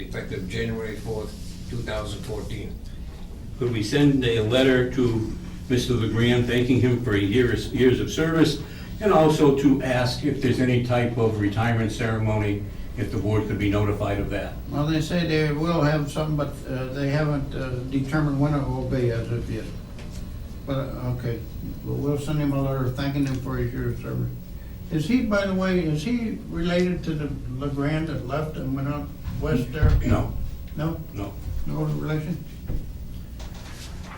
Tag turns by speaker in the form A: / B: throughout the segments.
A: effective January 4th, 2014.
B: Could we send a letter to Mr. LeGrand thanking him for years, years of service? And also to ask if there's any type of retirement ceremony, if the board could be notified of that.
C: Well, they say they will have some, but uh, they haven't uh, determined when it will be as of yet. But, uh, okay, Well, we'll send him a letter thanking him for his years of service. Is he, by the way, is he related to the LeGrand that left and went out west there?
B: No,
C: No?
B: no.
C: No relation?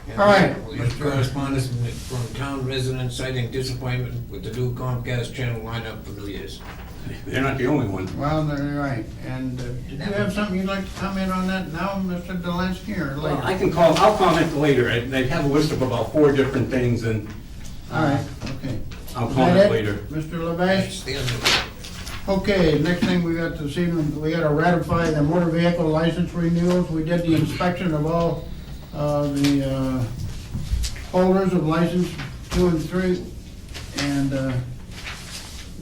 A: And
C: All right.
A: we have Correspondence from the- from town residents citing disappointment with the new Comcast channel lineup for New Year's.
B: They're not the only one.
C: Well, they're right. And uh, did you have something you'd like to comment on that now, Mr. Delansky, or
B: Well, I
C: later?
B: can call, I'll comment later. I I have a list of about four different things and
C: All right, okay.
B: I'll
C: Is that
B: comment
C: it?
B: later.
C: Mr. Lavash?
A: It's the end of it.
C: Okay, next thing we got this evening, we gotta ratify the motor vehicle license renewals. We did the inspection of all, uh, the, uh, holders of license two and three. And, uh,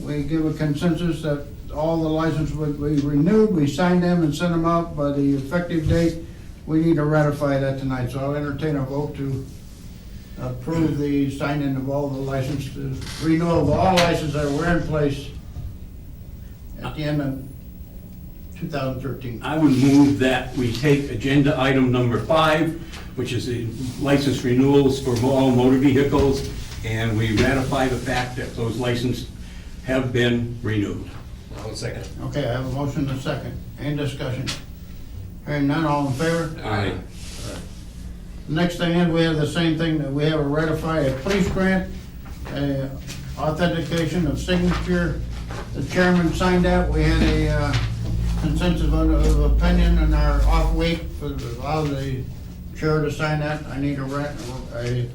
C: we give a consensus that all the licenses would be renewed. We signed them and sent them out by the effective date. We need to ratify that tonight, so I'll entertain a vote to approve the signing of all the licenses, renewal of all licenses that were in place at the end of 2013.
B: I would move that we take agenda item number five, which is the license renewals for all motor vehicles, and we ratify the fact that those licenses have been renewed.
A: I'll second. it.
C: Okay, I have a motion and a second. Any discussion? Hearing none, all in favor?
B: Aye.
C: Next thing is, we have the same thing, that we have a ratify a police grant, uh, authentication of signature. The chairman signed that. We had a uh, consensus vote of opinion in our off week for the- allow the chair to sign that. I need to rat- a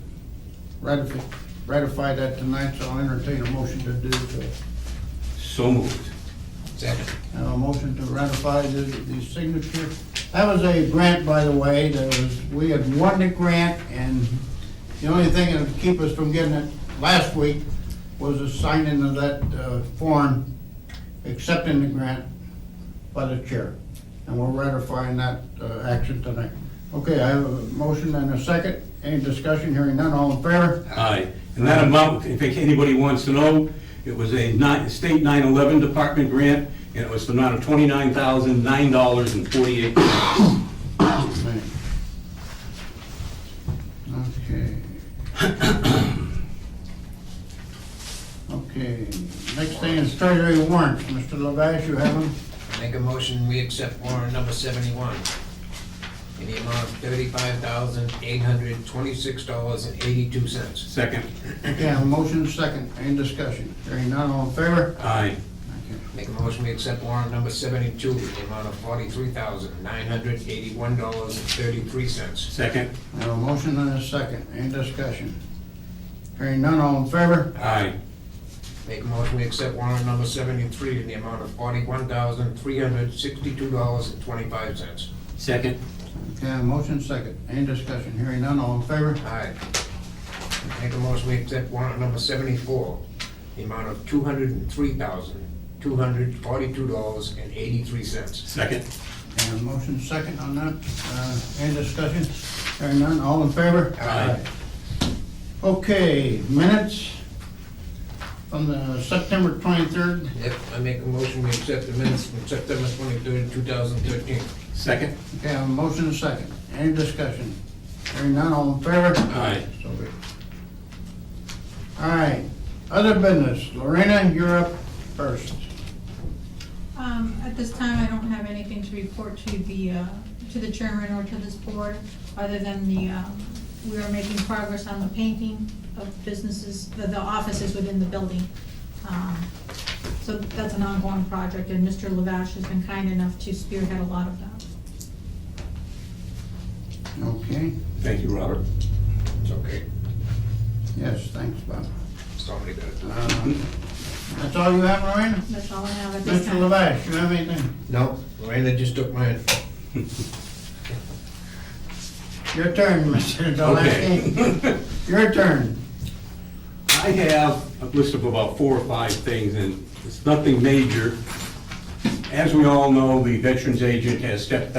C: ratify ratify that tonight, so I'll entertain a motion to do so.
B: So moved.
A: Second.
C: Have a motion to ratify the, the signature. That was a grant, by the way, that was, we had won the grant, and the only thing that would keep us from getting it last week was the signing of that, uh, form accepting the grant by the chair. And we're ratifying that, uh, action tonight. Okay, I have a motion and a second. Any discussion? Hearing none, all in favor?
B: Aye. And that amount, if anybody wants to know, it was a ni- state 911 department grant, and it was the amount of $29,009.48.
C: Okay. Okay, next thing is treasury warrants. Mr. Lavash, you have them?
A: Make a motion, we accept warrant number 71 in the amount of $35,826.82.
B: Second.
C: Okay, I have a motion second. Any discussion? Hearing none, all in favor?
B: Aye.
A: Make a motion, we accept warrant number 72 in the amount of $43,981.33.
B: Second.
C: I have a motion and a second. Any discussion? Hearing none, all in favor?
B: Aye.
A: Make a motion, we accept warrant number 73 in the amount of $41,362.25.
B: Second.
C: Okay, I have a motion second. Any discussion? Hearing none, all in favor?
A: Aye. Make a motion, we accept warrant number 74, the amount of $203,242.83.
B: Second.
C: I have a motion second on that. Uh, Any discussion? Hearing none, all in favor?
B: Aye.
C: Okay, minutes from the September 23rd.
A: Yep, I make a motion, we accept the minutes from September 23rd, 2013.
B: Second.
C: Okay, I have a motion and a second. Any discussion? Hearing none, all in favor?
B: Aye.
C: So be it. All right, other business. Lorena, you're up first.
D: Um, at this time, I don't have anything to report to the, uh, to the chairman or to this board, other than the, um, we are making progress on the painting of businesses, the, the offices within the building. Um, So that's an ongoing project, and Mr. Lavash has been kind enough to spearhead a lot of that.
C: Okay,
B: Thank you, Robert.
A: It's okay,
C: yes, thanks, Bob.
A: somebody got it.
C: Uh, That's all you have, Lorena?
D: That's all I have at this
C: Mr.
D: time.
C: Lavash, you have anything?
A: No, Miranda just took mine.
C: Your turn, Mr. Delansky.
B: Okay.
C: Your turn.
B: I have a list of about four or five things, and it's nothing major. As we all know, the Veterans Agent has stepped